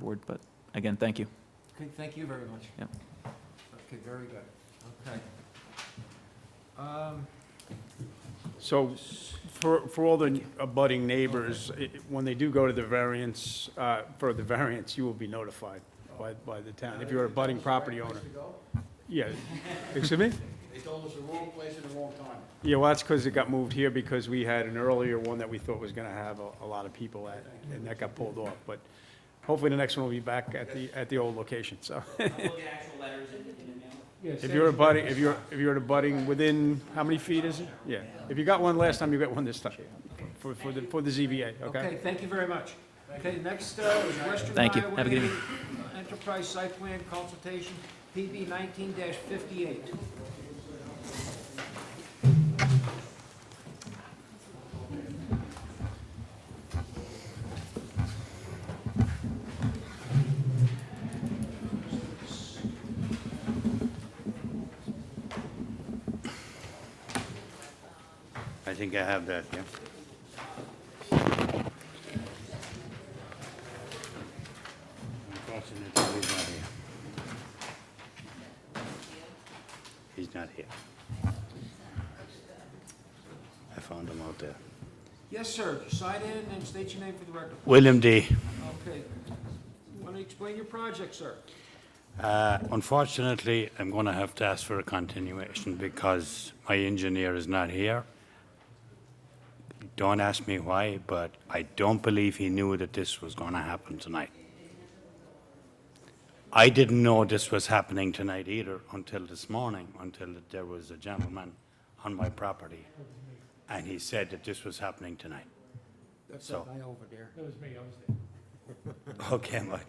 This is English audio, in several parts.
forward, but again, thank you. Okay, thank you very much. Yep. Okay, very good, okay. Um, So for, for all the abutting neighbors, i- when they do go to the variance, uh, for the variance, you will be notified by, by the town, if you're a budding property owner. Yeah, excuse me? They told us the wrong place at the wrong time. Yeah, well, that's because it got moved here because we had an earlier one that we thought was gonna have a, a lot of people at, and that got pulled off, but hopefully the next one will be back at the, at the old location, so. We'll get actual letters in, in the mail. If you're a budding, if you're, if you're a budding within, how many feet is it? Yeah, if you got one last time, you got one this time, for, for the, for the ZBA, okay? Okay, thank you very much. Okay, next uh, is Western Thank you. Have a good Highway Enterprise Site Plan Consultation, PB nineteen fifty-eight. I think I have that, yeah. Unfortunately, he's not here. He's not here. I found him out there. Yes, sir, sign in and state your name for the record. William D. Okay. Want to explain your project, sir? Uh, Unfortunately, I'm going to have to ask for a continuation because my engineer is not here. Don't ask me why, but I don't believe he knew that this was going to happen tonight. I didn't know this was happening tonight either until this morning, until there was a gentleman on my property, and he said that this was happening tonight. That's So- that guy over there. Okay, Mike.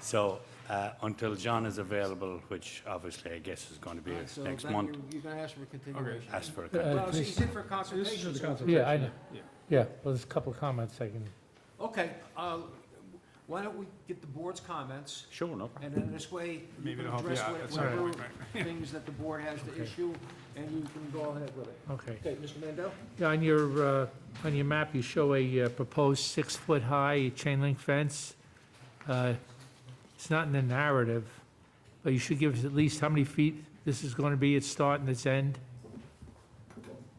So, uh, until John is available, which obviously I guess is going to be So next that- month, you- You're going to ask for a continuation. ask for a Uh, con- Well, he's in for consultation. so- Yeah, I know. Yeah, well, there's a couple of comments I can, Okay, uh, why don't we get the board's comments? Sure, no. And then this way, you Maybe can it'll help you address out. what- That's all right. whatever things that the board has to issue, and you can go ahead with it. okay. Okay, Mr. Mandel? Yeah, On your, uh, on your map, you show a uh, proposed six-foot-high chain link fence. Uh, It's not in the narrative, but you should give us at least how many feet this is going to be, its start and its end.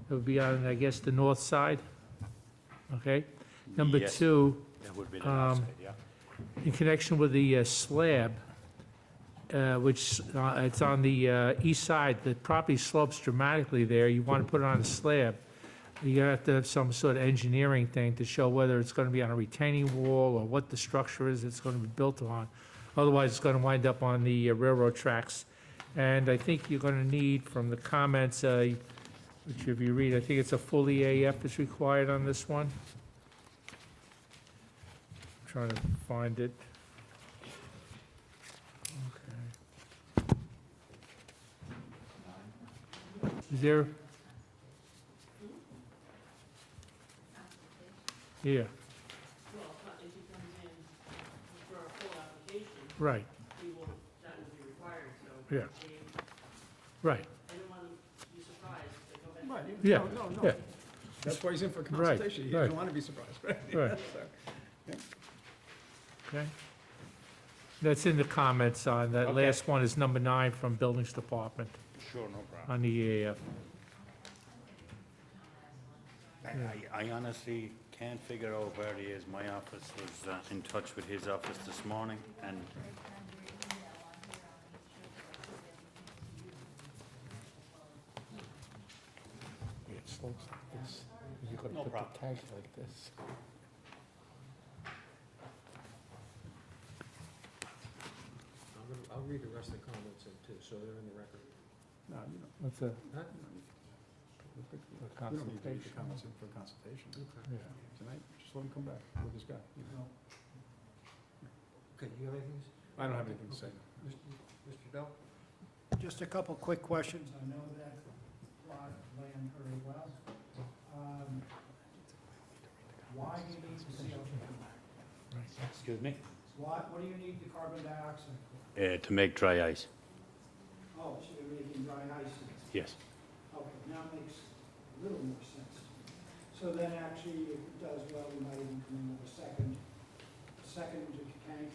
It would be on, I guess, the north side, okay? Number Yes, two, That would be the last um, bit, yeah. in connection with the uh, slab, uh, which, uh, it's on the uh, east side, the property slopes dramatically there, you want to put it on a slab. You gotta have to have some sort of engineering thing to show whether it's going to be on a retaining wall or what the structure is it's going to be built on. Otherwise, it's going to wind up on the uh, railroad tracks. And I think you're going to need, from the comments, uh, which if you read, I think it's a full EAF is required on this one. Trying to find it. Okay. Is there? Yeah, Well, if he comes in for a full application, right, he will, that will be required, so. Yeah. they- right, I don't want to be surprised if they go back. Yeah, No, no, yeah. no. That's why he's in for Right, consultation. You don't right. want to be surprised, right? right. Okay. That's in the comments on, that Okay. last one is number nine from Buildings Department Sure, no problem. on the E EAF. I I honestly can't figure out where he is. My office was uh, in touch with his office this morning, and It slopes like this. You could No put the problem. tag like this. I'm gonna- I'll read the rest of the comments in too, so they're in the record. No, you don't- That's a Huh? we don't need to leave the comments in for consultation Okay. yeah. tonight. Just let him come back with his guy. you know. Okay, you have anything, I don't have anything to say. Mr. Dell? Just a couple quick questions. I know that plot of land very well. Um, Why do you need the CO2? Excuse me? Why, what do you need the carbon dioxide for? Uh, To make dry ice, Oh, so you're making dry ice. in yes. it. Okay, now it makes a little more sense. So then actually, if it does well, we might even come in with a second, second tank